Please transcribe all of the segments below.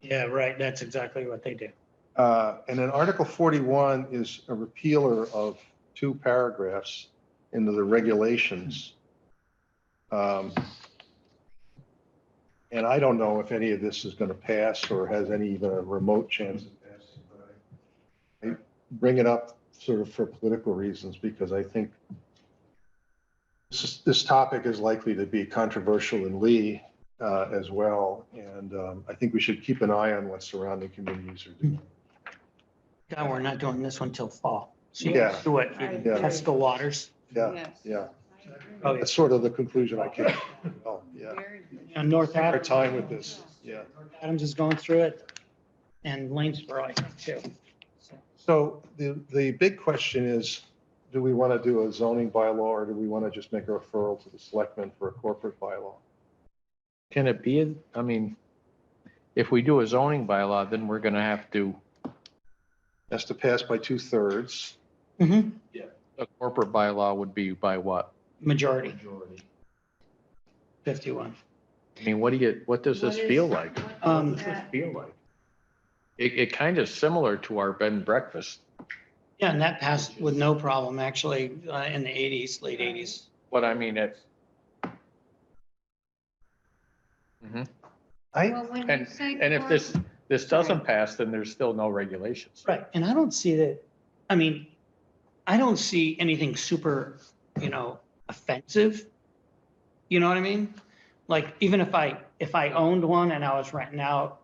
Yeah, right. That's exactly what they do. Uh, And then Article 41 is a repealer of two paragraphs into the regulations. Um, And I don't know if any of this is going to pass or has any even a remote chance of passing. but I I Bring it up sort of for political reasons because I think this, is- this topic is likely to be controversial in Lee uh, as well. And um, I think we should keep an eye on what surrounding communities are doing. God, we're not doing this one till fall. So you Yeah. can do it, you can Yeah. test the waters. Yeah, Yes. yeah. I agree. Oh, that's sort of the conclusion I came, to. oh, yeah. Very You good. know, North Our Adams, time with this, yeah. Adams is going through it and Lanesboro, I think, too. So, So the, the big question is, do we want to do a zoning bylaw or do we want to just make a referral to the selectmen for a corporate bylaw? Can it be, a- I mean, if we do a zoning bylaw, then we're gonna have to, Has to pass by two thirds. mhm, a corporate bylaw would be by what? Majority, Majority. 51. I mean, what do you, what does this What is- feel like? what is Um, that? Feel like? It, it kind of similar to our bed and breakfast. Yeah, and that passed with no problem, actually, uh, in the 80s, late 80s. But I mean, it, I, Well, when you and, say Mm-hmm. and if this, corp- this doesn't pass, then there's still no regulations. Right, and I don't see that, I mean, I don't see anything super, you know, offensive. You know what I mean? Like, even if I, if I owned one and I was renting out,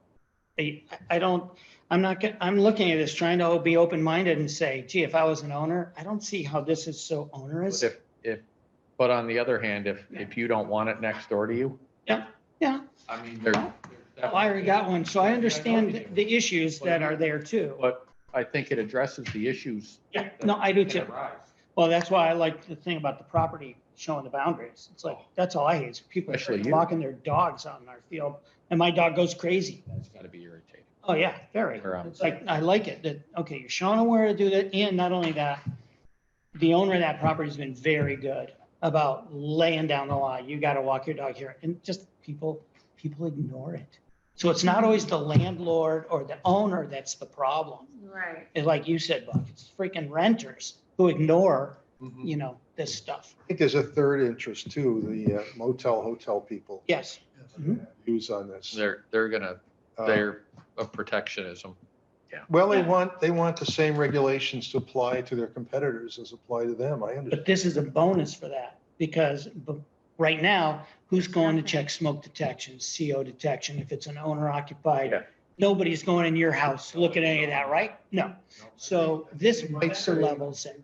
I, I don't, I'm not, get- I'm looking at this trying to be open-minded and say, gee, if I was an owner, I don't see how this is so But onerous. if, if, but on the other hand, if, if you don't want it next door to you. Yeah, yeah. I mean, there. Oh, I already got one, so I understand the the issues that are there too. But I think it addresses the issues. Yeah, no, I do that too. arise. Well, that's why I like the thing about the property showing the boundaries. It's like, that's all I hate is people Especially you. walking their dogs out in our field and my dog goes crazy. That's gotta be irritating. Oh, yeah, very. Or, um, It's like, I like it that, okay, you're showing them where to do that. And not only that, the owner of that property has been very good about laying down the law. You got to walk your dog here and just people, people ignore it. So it's not always the landlord or the owner that's the problem. Right. And like you said, Buck, it's freaking renters who ignore, you know, this stuff. think there's a third interest too, the uh, motel, hotel people Yes. Mhm. use on this. They're, they're gonna, Uh, they're of protectionism. Well, they Yeah. want, they want the same regulations to apply to their competitors as apply to them. I understand. But this is a bonus for that because b- right now, who's going to check smoke detection, CO detection if it's an owner Yeah. occupied? Nobody's going in your house, look at any of that, right? No. So this makes the levels in.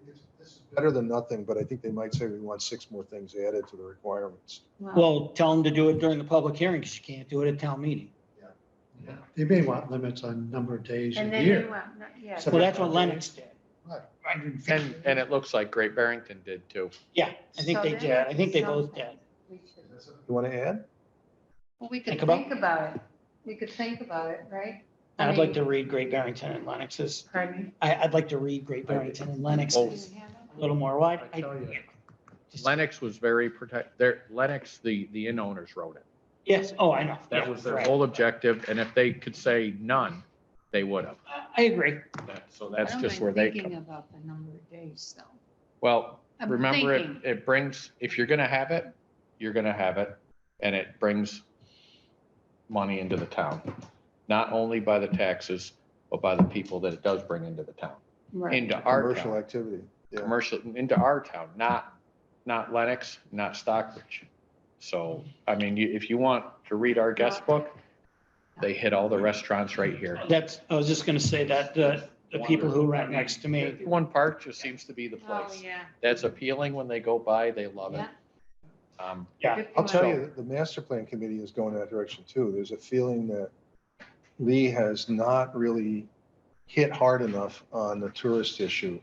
Better than nothing, but I think they might say we want six more things added to the requirements. Well, tell them to do it during the public hearing because you can't do it at town meeting. Yeah, They may want limits on number of days And a then you year. want, yeah. So- Well, that's what Lennox did. And, and it looks like Great Barrington did too. Yeah, I think they did. I think they both did. we should- You want to add? Well, we Think could about- think about it. We could think about it, right? I I'd like mean- to read Great Barrington and Lennox's. Pardon? I, I'd like to read Great Barrington and Oh. Lennox's a little more wide. I tell you. Just- Lennox was very protect, there, Lennox, the, the inn owners wrote it. Yes, oh, I know. That Yeah, was their right. whole objective, and if they could say none, they would have. I- I agree. That- So that's just where they Thinking come. about the number of days though. Well, I'm remember it, thinking. it brings, if you're gonna have it, you're gonna have it, and it brings money into the town, not only by the taxes, but by the people that it does bring into the town, Right. into our Commercial town, activity. Yeah. commercial, into our town, not, not Lennox, not Stockbridge. So, I mean, you, if you want to read our guest book, they hit all the restaurants right here. That's, I was just gonna say that, the, the people who rent next to me, One park just seems to be the Oh, place. yeah. That's appealing when they go by, they love it. Yeah. Um, yeah, I'll tell you, that the master plan committee is going that direction too. There's a feeling that Lee has not really hit hard enough on the tourist issue.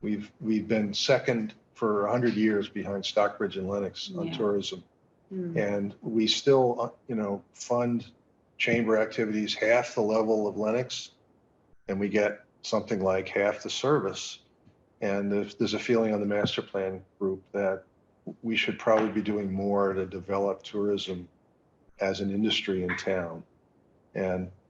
We've, we've been second for 100 years behind Stockbridge and Lennox on Yeah. tourism. Mm. And we still, uh, you know, fund chamber activities half the level of Lennox. And we get something like half the service. And there's, there's a feeling on the master plan group that we should probably be doing more to develop tourism as an industry in town. And